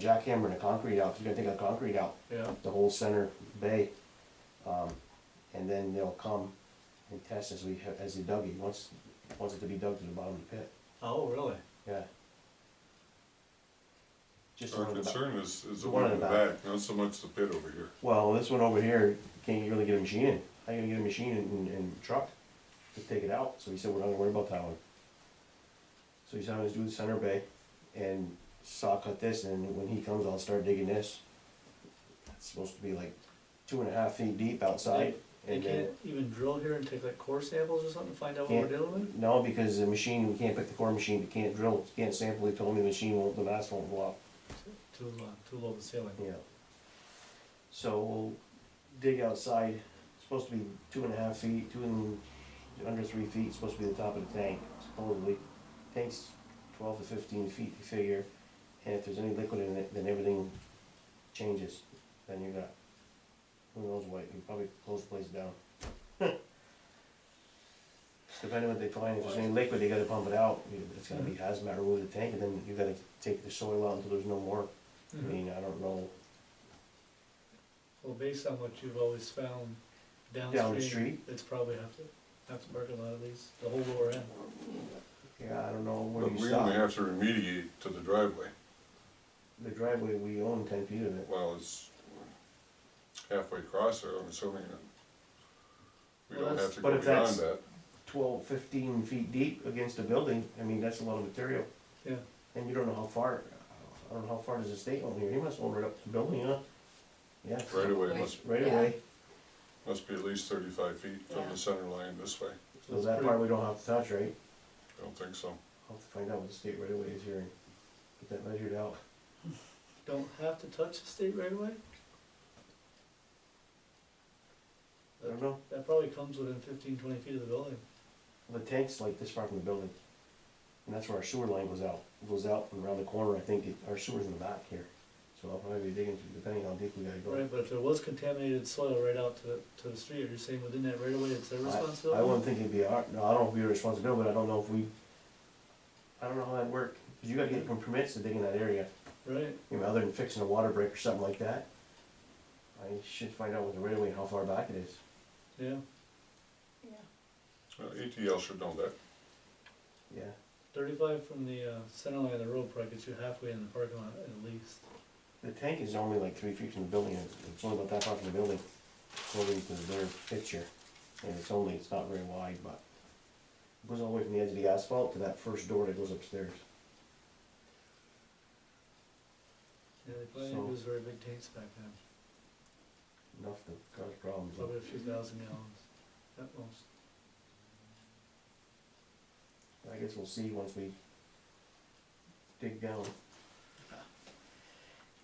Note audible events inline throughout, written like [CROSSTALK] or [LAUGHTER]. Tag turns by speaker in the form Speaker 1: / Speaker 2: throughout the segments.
Speaker 1: jackhammering the concrete out, 'cause you're gonna take the concrete out,
Speaker 2: Yeah,
Speaker 1: the whole center bay. Um, and then they'll come and test as we, ha- as they dug it, once, wants it to be dug to the bottom of the pit,
Speaker 2: oh, really?
Speaker 1: yeah. Just
Speaker 3: Our
Speaker 1: one about-
Speaker 3: concern is, is the
Speaker 1: One
Speaker 3: one
Speaker 1: in
Speaker 3: in the
Speaker 1: the
Speaker 3: back, not so much the pit over here.
Speaker 1: Well, this one over here, can't really get a machine in, how you gonna get a machine in, in, in truck to take it out, so he said, we're not gonna worry about that one. So he's having us do the center bay and saw cut this, and when he comes, I'll start digging this. It's supposed to be like two and a half feet deep outside,
Speaker 2: They
Speaker 1: and then,
Speaker 2: can't even drill here and take like core samples or something, to find out what we're
Speaker 1: Can't.
Speaker 2: dealing with?
Speaker 1: no, because the machine, we can't pick the core machine, we can't drill, can't sample, he told me the machine won't, the mass won't go up,
Speaker 2: Too low, too low of a ceiling.
Speaker 1: yeah. So we'll dig outside, It's supposed to be two and a half feet, two and, under three feet, It's supposed to be the top of the tank, supposedly. Tank's twelve to fifteen feet, you figure, and if there's any liquid in it, then everything changes, then you got, who knows what, you probably close the place down. [LAUGHS] Depending what they find, if there's any liquid, they gotta pump it out, You- it's gonna be hazmat, remove the tank, and then you gotta take the soil out until there's no more. I
Speaker 2: Mhm.
Speaker 1: mean, I don't know,
Speaker 2: Well, based on what you've always found
Speaker 1: the
Speaker 2: downstream,
Speaker 1: street?
Speaker 2: it's probably have to, have to work a lot of these, the whole lower end.
Speaker 1: yeah, I don't know where
Speaker 3: But
Speaker 1: you
Speaker 3: we
Speaker 1: stop.
Speaker 3: only have to remediate to the driveway,
Speaker 1: The driveway, we own ten feet of it.
Speaker 3: well, it's halfway across there, I'm assuming that we
Speaker 2: Well,
Speaker 3: don't
Speaker 2: that's-
Speaker 3: have to
Speaker 1: but
Speaker 3: go
Speaker 1: if that's-
Speaker 3: beyond that.
Speaker 1: twelve, fifteen feet deep against a building, I mean, that's a lot of material.
Speaker 2: Yeah.
Speaker 1: And you don't know how far, I don't know how far does the state own here, he must own right up to the building, huh? Yeah,
Speaker 3: Right away
Speaker 4: Right.
Speaker 3: must,
Speaker 1: right
Speaker 4: Yeah.
Speaker 1: away,
Speaker 3: must be at least thirty-five feet from
Speaker 4: Yeah.
Speaker 3: the center line this way,
Speaker 2: So
Speaker 1: so
Speaker 2: it's
Speaker 1: that
Speaker 2: pretty-
Speaker 1: part we don't have to touch, right?
Speaker 3: I don't think so.
Speaker 1: I'll have to find out what the state right away is here and get that measured out.
Speaker 2: Don't have to touch the state right away?
Speaker 1: I don't know,
Speaker 2: That probably comes within fifteen, twenty feet of the building.
Speaker 1: the tank's like this far from the building, and that's where our sewer line goes out, It goes out and around the corner, I think, it- our sewer's in the back here. So I'll probably be digging, through, depending how deep we gotta go.
Speaker 2: Right, but if there was contaminated soil right out to, the to the street, are you saying within that right away, it's their
Speaker 1: I-
Speaker 2: responsibility?
Speaker 1: I wouldn't think it'd be our, no, I don't know if it'd be a responsibility, but I don't know if we, I don't know how that'd work, cause you gotta get permits to dig in that area,
Speaker 2: Right,
Speaker 1: you know, other than fixing a water break or something like that. I should find out with the railway how far back it is.
Speaker 2: yeah,
Speaker 4: Yeah,
Speaker 3: Well, ATL should know that,
Speaker 1: Yeah,
Speaker 2: thirty-five from the, uh, center line of the road probably gets you halfway in the parking lot at least.
Speaker 1: the tank is only like three feet from the building, and it's only about that far from the building, according to their picture. And it's only, it's not very wide, but it goes all the way from the edge of the asphalt to that first door that goes upstairs.
Speaker 2: Yeah, they probably
Speaker 1: So-
Speaker 2: didn't use very big tanks back then,
Speaker 1: Enough to cause problems.
Speaker 2: probably a few thousand gallons at most.
Speaker 1: I guess we'll see once we dig down.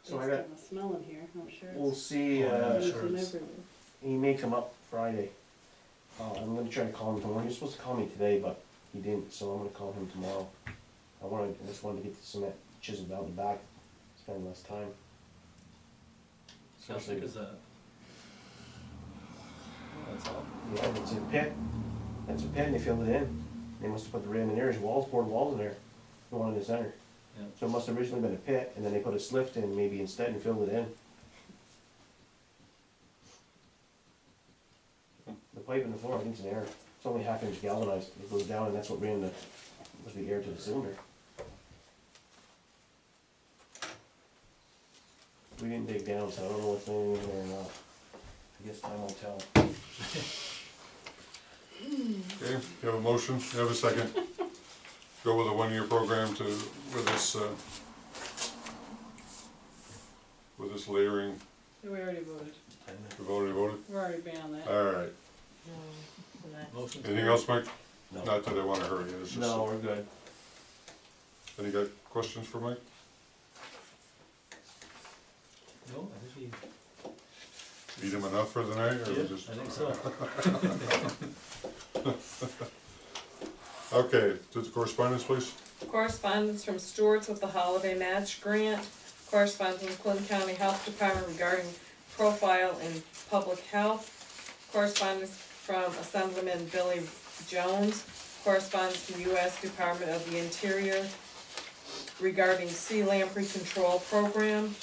Speaker 1: So I
Speaker 4: It's
Speaker 1: got,
Speaker 4: kinda Smelling here, I'm sure.
Speaker 1: we'll
Speaker 4: it's-
Speaker 1: see,
Speaker 2: Yeah,
Speaker 1: uh,
Speaker 4: it's
Speaker 2: sure
Speaker 4: from
Speaker 2: it's-
Speaker 4: everywhere.
Speaker 1: he may come up Friday. Uh, I'm gonna try to call him tomorrow, he was supposed to call me today, but he didn't, so I'm gonna call him tomorrow. I wanted, I just wanted to get the cement chiseled out in the back, spend less time.
Speaker 2: How
Speaker 1: Especially-
Speaker 2: thick is that? Oh, That's all,
Speaker 1: Yeah, it's a pit, that's a pit, and they filled it in, they must have put the rim in there, there's walls, poured walls in there, the one in the center.
Speaker 2: yeah.
Speaker 1: So it must have originally been a pit, and then they put a slift in maybe instead and filled it in. The pipe in the floor, I think it's an air, it's only half inch galvanized, it goes down, and that's what ran the, was the air to the cylinder. We didn't dig down, so I don't know what's in there or not. I guess time will tell.
Speaker 3: okay, you have a motion, you have a second.
Speaker 4: [LAUGHS]
Speaker 3: Go with a one-year program to, with this, uh, with this layering,
Speaker 4: We already voted,
Speaker 3: we've already voted,
Speaker 4: we're already beyond that.
Speaker 3: alright.
Speaker 2: Motion to-
Speaker 3: Anything else, Mike?
Speaker 1: No,
Speaker 3: Not that I wanna hurry you, it's just,
Speaker 1: no, we're good.
Speaker 3: any got questions for Mike?
Speaker 2: No, I think he,
Speaker 3: Eat him enough for the night,
Speaker 2: yeah, I
Speaker 3: or just?
Speaker 2: think so.
Speaker 3: Okay, to the correspondence, please.
Speaker 5: Correspondence from Stewart's with the holiday match grant. Correspondence from Clinton County Health Department regarding profile in public health. Correspondence from Assemblyman Billy Jones. Correspondence from U.S. Department of the Interior. regarding sea lamprey control program.